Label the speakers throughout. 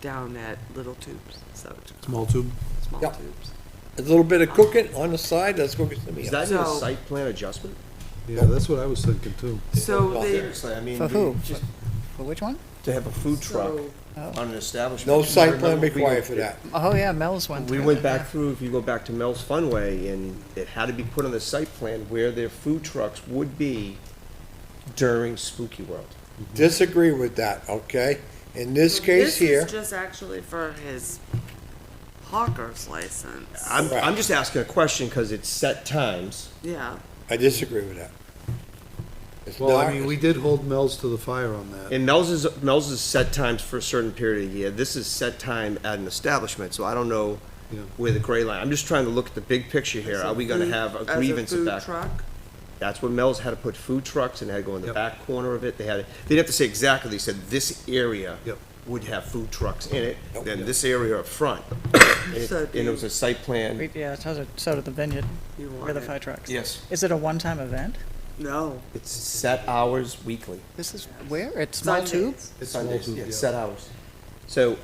Speaker 1: down at little tubes, so,
Speaker 2: Small tube.
Speaker 1: small
Speaker 3: Yep.
Speaker 1: tubes.
Speaker 3: A little bit of cooking on the side, let's cook it to me.
Speaker 4: Is that in a
Speaker 1: So-
Speaker 4: site plan adjustment?
Speaker 2: Yeah, that's what I was thinking too.
Speaker 1: So they,
Speaker 4: Seriously, I mean.
Speaker 5: For
Speaker 4: we-
Speaker 5: who?
Speaker 4: just
Speaker 5: For which one?
Speaker 4: To have a food truck
Speaker 1: So-
Speaker 4: on an establishment.
Speaker 3: No site
Speaker 4: Remember,
Speaker 3: plan
Speaker 4: we
Speaker 3: required
Speaker 4: went-
Speaker 3: for that.
Speaker 5: Oh, yeah, Mel's one.
Speaker 4: We went back through, if you go back to Mel's Funway, and it had to be put on the site plan where their food trucks would be during Spooky World.
Speaker 3: Disagree with that, okay? In this case here,
Speaker 1: This is just actually for his hawker's license.
Speaker 4: I'm,
Speaker 3: Right.
Speaker 4: I'm just asking a question because it's set times.
Speaker 1: Yeah,
Speaker 3: I disagree with that. It's
Speaker 2: Well, I
Speaker 3: not-
Speaker 2: mean, we did hold Mel's to the fire on that.
Speaker 4: And Mel's is, Mel's is set times for a certain period of the year. This is set time at an establishment, so I don't know
Speaker 2: Yeah.
Speaker 4: where the gray line, I'm just trying to look at the big picture here. Are we gonna have a
Speaker 1: As
Speaker 4: grievance
Speaker 1: food
Speaker 4: of that?
Speaker 1: truck?
Speaker 4: That's where Mel's had to put food trucks and had to go in the
Speaker 2: Yep.
Speaker 4: back corner of it. They had, they'd have to say exactly, they said this area
Speaker 2: Yep.
Speaker 4: would have food trucks in it,
Speaker 3: Yep.
Speaker 4: then this area up front. And it-
Speaker 1: So
Speaker 4: and it was a site plan.
Speaker 5: Yeah, so did, so did the vineyard,
Speaker 1: You
Speaker 5: where
Speaker 1: want
Speaker 5: the
Speaker 1: it?
Speaker 5: fire trucks.
Speaker 4: Yes.
Speaker 5: Is it a one-time event?
Speaker 1: No.
Speaker 4: It's set hours weekly.
Speaker 5: This is where? It's Small Tube?
Speaker 1: Sundays.
Speaker 2: It's small
Speaker 4: Sundays,
Speaker 2: tube,
Speaker 4: yeah,
Speaker 2: yeah.
Speaker 4: set hours. So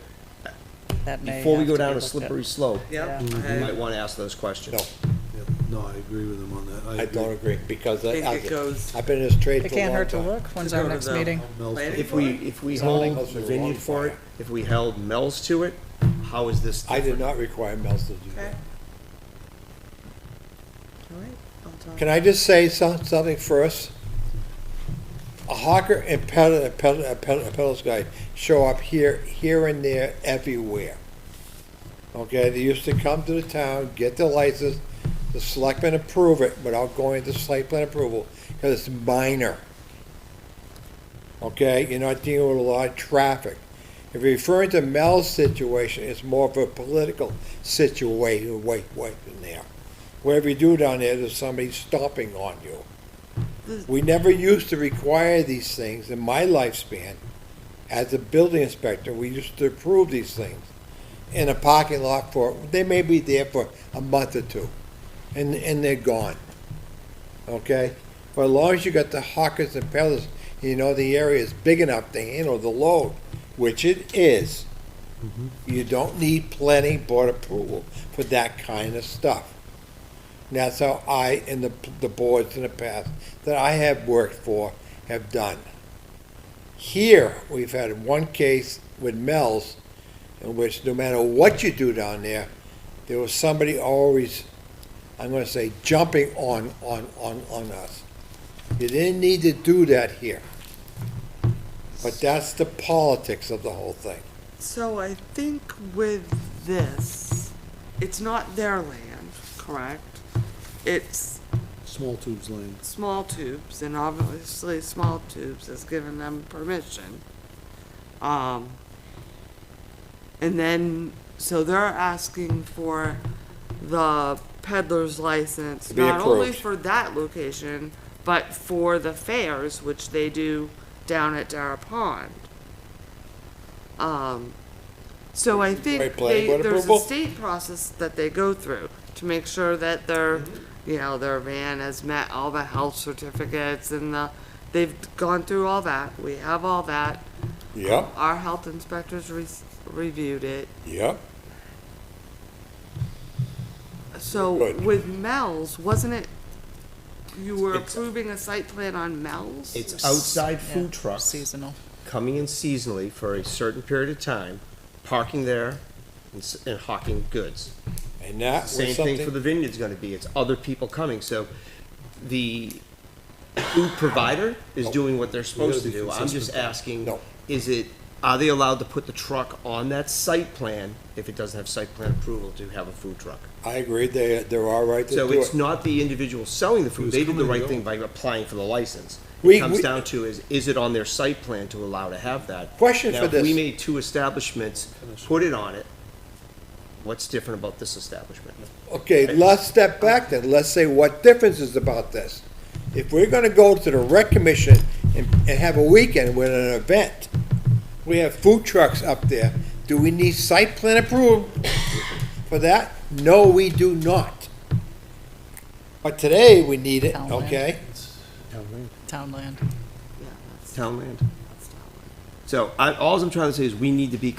Speaker 5: That may
Speaker 4: before we
Speaker 5: have
Speaker 4: go
Speaker 5: to be
Speaker 4: down a
Speaker 5: looked at.
Speaker 4: slippery slope, you
Speaker 1: Yep.
Speaker 5: Yeah.
Speaker 1: I
Speaker 4: might want to ask those questions.
Speaker 3: No,
Speaker 2: Yeah. No, I agree with him on that.
Speaker 3: I don't agree, because I,
Speaker 1: think it
Speaker 3: I've
Speaker 1: goes.
Speaker 3: been in this trade
Speaker 5: It
Speaker 3: for a
Speaker 5: can't
Speaker 3: long
Speaker 5: hurt to
Speaker 3: time.
Speaker 5: look. When's
Speaker 1: To go
Speaker 5: our
Speaker 1: to
Speaker 5: next
Speaker 1: the-
Speaker 5: meeting?
Speaker 2: Mel's,
Speaker 1: Planning
Speaker 4: If we, if we
Speaker 3: Zoning.
Speaker 4: hold the vineyard for it, if we held Mel's to it, how is this
Speaker 3: I did
Speaker 4: different?
Speaker 3: not require Mel's to do
Speaker 1: Okay.
Speaker 3: that.
Speaker 1: All right, I'll talk.
Speaker 3: Can I just say some, something first? A hawker and peddler, a peddler, a peddler, a peddler's guy show up here, here and there, everywhere. Okay, they used to come to the town, get their license, the selectmen approve it without going to site plan approval, because it's minor. Okay, you're not dealing with a lot of traffic. If you're referring to Mel's situation, it's more of a political situation, wait, wait, in there. Whatever you do down there, there's somebody stomping on you. We never used to require these things in my lifespan. As a building inspector, we used to approve these things in a parking lot for, they may be there for a month or two, and, and they're gone. Okay? But as long as you got the hawkers and peddlers, you know the area is big enough to handle the load, which it is. You don't need planning board approval for that kind of stuff. And that's how I and the, the boards in the past that I have worked for have done. Here, we've had one case with Mel's in which no matter what you do down there, there was somebody always, I'm gonna say, jumping on, on, on, on us. You didn't need to do that here. But that's the politics of the whole thing.
Speaker 1: So I think with this, it's not their land, correct? It's
Speaker 2: small tubes lane.
Speaker 1: small tubes, and obviously small tubes has given them permission. Um, and then, so they're asking for the peddler's license,
Speaker 3: To be
Speaker 1: not only
Speaker 3: approved.
Speaker 1: for that location, but for the fairs, which they do down at Dara Pond. Um, so I
Speaker 3: Right,
Speaker 1: think
Speaker 3: planning
Speaker 1: they,
Speaker 3: board
Speaker 1: there's a
Speaker 3: approval?
Speaker 1: state process that they go through to make sure that their,
Speaker 3: Mm-hmm.
Speaker 1: you know, their van has met all the health certificates and the, they've gone through all that. We have all that.
Speaker 3: Yep,
Speaker 1: Our health inspectors re- reviewed it.
Speaker 3: yep.
Speaker 1: So
Speaker 3: Good.
Speaker 1: with Mel's, wasn't it, you were
Speaker 4: It's-
Speaker 1: approving a site plan on Mel's?
Speaker 4: It's outside
Speaker 5: Yeah,
Speaker 4: food trucks.
Speaker 5: Seasonal.
Speaker 4: coming in seasonally for a certain period of time, parking there and, s- and hawking goods.
Speaker 3: And that
Speaker 4: Same
Speaker 3: was
Speaker 4: thing for the
Speaker 3: something,
Speaker 4: vineyard's gonna be, it's other people coming, so the food provider is doing what they're supposed to
Speaker 2: be
Speaker 4: do. I'm just
Speaker 2: consistent.
Speaker 4: asking,
Speaker 3: No.
Speaker 4: is it, are they allowed to put the truck on that site plan if it doesn't have site plan approval to have a food truck?
Speaker 3: I agree, they, they're all right to
Speaker 4: So
Speaker 3: do
Speaker 4: it's
Speaker 3: it.
Speaker 4: not the individual selling the food,
Speaker 2: was
Speaker 4: they did the
Speaker 2: coming and
Speaker 4: right
Speaker 2: going.
Speaker 4: thing by applying for the license.
Speaker 3: We-
Speaker 4: It comes
Speaker 3: we-
Speaker 4: down to is, is it on their site plan to allow to have that?
Speaker 3: Question
Speaker 4: Now,
Speaker 3: for
Speaker 4: if
Speaker 3: this.
Speaker 4: we made two establishments, put it on it, what's different about this establishment?
Speaker 3: Okay, let's step back then, let's say what difference is about this. If we're gonna go to the rec commission and, and have a weekend with an event, we have food trucks up there, do we need site plan approval for that? No, we do not. But today, we need it,
Speaker 5: Townland.
Speaker 3: okay?
Speaker 4: Townland.
Speaker 5: Townland.
Speaker 1: Yeah, that's-
Speaker 4: Townland.
Speaker 1: that's not what-
Speaker 4: So I, alls I'm trying to say is we need to be